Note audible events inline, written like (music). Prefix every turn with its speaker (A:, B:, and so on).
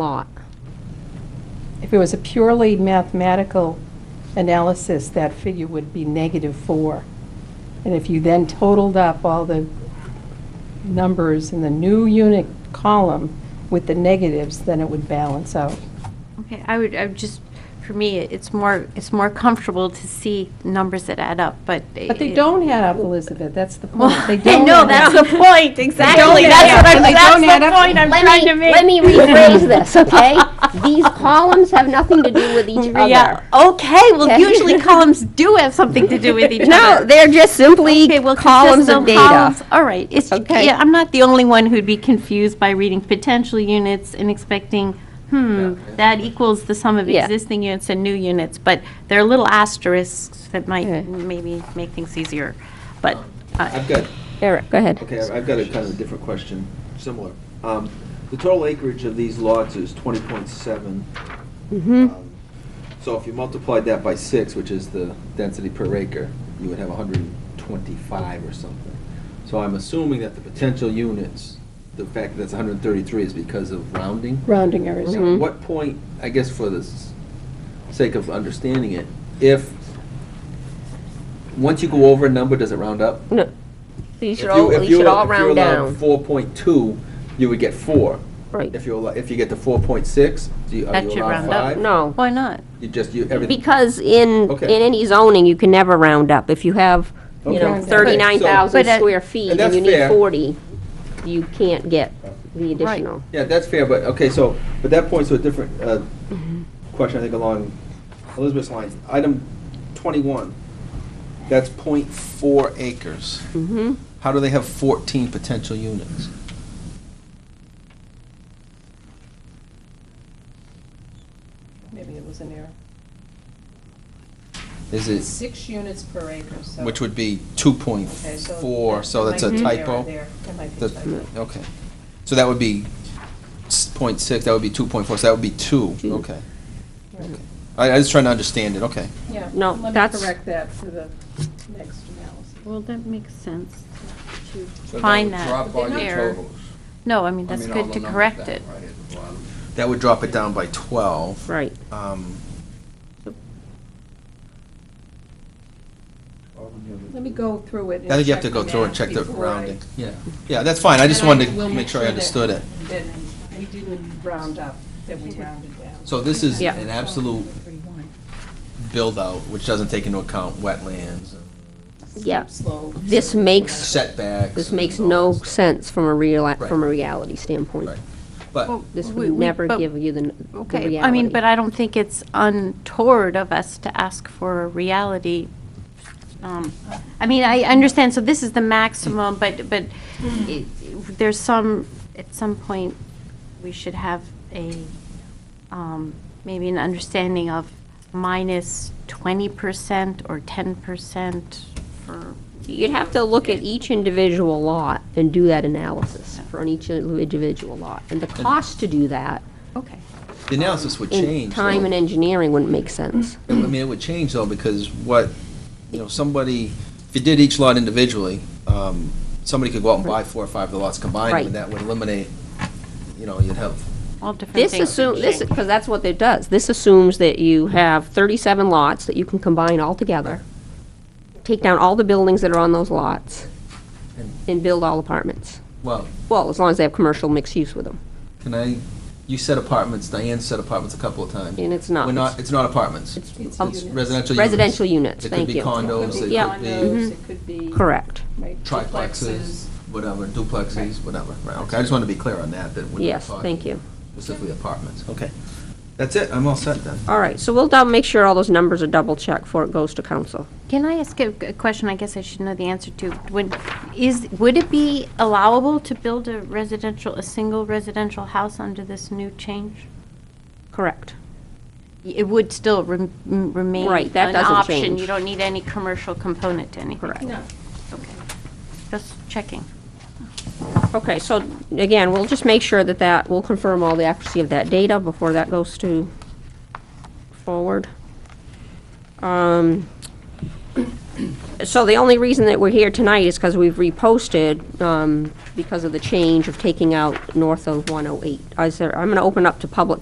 A: lot.
B: If it was a purely mathematical analysis, that figure would be negative four. And if you then totaled up all the numbers in the new unit column with the negatives, then it would balance out.
C: Okay, I would, I would just, for me, it's more, it's more comfortable to see numbers that add up, but.
B: But they
C: (laughs)
B: don't add up, Elizabeth, that's the
A: (laughs)
B: point. They don't
C: No,
B: add up.
C: that's the point, exactly.
B: add
C: That's
B: up,
C: what
B: and
C: I'm,
B: they don't add
C: that's
B: up.
C: the point I'm
A: Let
C: trying
A: me,
C: to make.
A: let me rephrase
C: (laughs)
A: this, okay? These columns have nothing to do with each
C: Yeah,
A: other.
C: okay, well,
A: Okay. (laughs)
C: usually columns do have something to do with each
A: No,
C: other.
A: they're just simply
C: Okay, well,
A: columns
C: consistent
A: of data.
C: columns, All right, it's,
A: Okay.
C: yeah, I'm not the only one who'd be confused by reading potential units and expecting, hmm, that equals the sum of
A: Yeah.
C: existing units and new units, but there are little asterisks that
A: Yeah.
C: might maybe make things easier, but. uh,
D: I've got,
A: Eric, go ahead.
D: okay, I've- I've got a kind of different question, similar. Um, The total acreage of these lots is 20.7.
A: Mm-hmm.
D: Um, So if you multiplied that by six, which is the density per acre, you would have 125 or something. So I'm assuming that the potential units, the fact that that's 133 is because of rounding?
B: Rounding errors.
A: Mm-hmm.
D: At what point, I guess for the s- sake of understanding it, if, once you go over a number, does it round up?
A: No, You should
D: If you-
A: all,
D: if
A: you should
D: were-
A: all round down.
D: If you allowed 4.2, you would get 4.
A: Right.
D: If you, allow- if you get to 4.6, do you, are
C: That
D: you
C: should
D: allowed
C: round up.
D: 5?
A: No.
C: Why not?
D: You just, you, everything.
A: Because in, in
D: Okay.
A: any zoning, you can never round up. If you have, you
D: Okay.
A: know,
D: Okay, so-
A: 39,000
C: But uh, that-
A: square feet
D: and
A: and
D: that's
A: you need
D: fair.
A: 40, you can't get the additional.
D: Yeah, that's fair, but, okay, so, but that points to a different uh,
A: Mm-hmm.
D: question, I think, along Elizabeth's lines. Item 21, that's .4 acres.
A: Mhm.
D: How do they have 14 potential units?
B: Maybe it was an error.
D: Is it,
B: Six units per acre, so.
D: which would be 2.4, so that's a typo? That- Okay. So that would be s- point six, that would be two point four, so that would be two,
A: Two.
D: okay. Okay. I, I was trying to understand it, okay.
B: Yeah,
A: No,
B: let me
A: that's-
B: correct that for the next analysis.
C: Well, that makes sense to find that error. No, I mean, that's good to correct it.
D: That would drop it down by twelve.
A: Right.
D: Um,
B: Let me go through it.
D: I think you have to go through and check the rounding. Yeah. Yeah, that's fine, I just wanted to make sure I understood it.
B: That we didn't round up, that we rounded down.
D: So this is
A: Yeah.
D: an absolute build-out, which doesn't take into account wetlands, and
A: Yeah.
B: Slow.
A: This makes,
D: setbacks.
A: this
D: and
A: makes
D: all
A: no
D: that stuff.
A: sense from a real,
D: Right.
A: from a reality standpoint.
D: Right. But,
A: This
C: We-
A: would
C: we-
A: never
C: but-
A: give you the n- the reality.
C: Okay, I mean, but I don't think it's untoward of us to ask for a reality. um, I mean, I understand, so this is the maximum, but, but it- there's some, at some point, we should have a, um, maybe an understanding of minus 20% or 10% for.
A: You'd have to look at each individual lot and do that analysis for on each individual lot. And the cost to do that
C: Okay.
D: the analysis would
A: in
D: change. Mm-hmm.
A: time
D: though.
A: and engineering wouldn't make sense.
D: I mean, it would change though, because what, you know, somebody, if you did each lot individually, um, somebody could go out and buy four or five of the lots combined,
A: Right.
D: and that would eliminate, you know, you'd have,
C: All different
A: This
C: things.
A: assumes, this, because that's what it does. This assumes that you have 37 lots that you can combine all together, take down all the buildings that are on those lots,
D: And-
A: and build all apartments.
D: well,
A: Well, as long as they have commercial mixed use with them.
D: can I, you said apartments, Diane said apartments a couple of times.
A: And it's not.
D: We're not, it's not apartments. It's
B: units.
D: residential units.
A: Residential units, thank
D: It could
A: you.
D: be condos,
B: It could be
A: Yeah. Mm-hmm.
D: it
B: condos, it could be.
A: Correct.
B: right,
D: could be triplexes, whatever,
B: Right.
D: duplexes, whatever, right, okay, I just wanted to be clear on that, that we're not
A: Yes, thank
D: talking
A: you.
D: specifically apartments, okay. That's it, I'm all set then.
A: All right, so we'll dou- make sure all those numbers are double-checked before it goes to council.
C: Can I ask a a question I guess I should know the answer to? When, is, would it be allowable to build a residential, a single residential house under this new change?
A: Correct.
C: Y- It would still rem- m- remain
A: Right, that doesn't
C: an option.
A: change.
C: You don't need any commercial component to anything.
A: Correct.
B: No.
C: Okay. Just checking.
A: Okay, so again, we'll just make sure that that, we'll confirm all the accuracy of that data before that goes to forward. Um, So the only reason that we're here tonight is because we've reposted, oh um, because of the change of taking out north of 108. Is there, I'm going to open up to public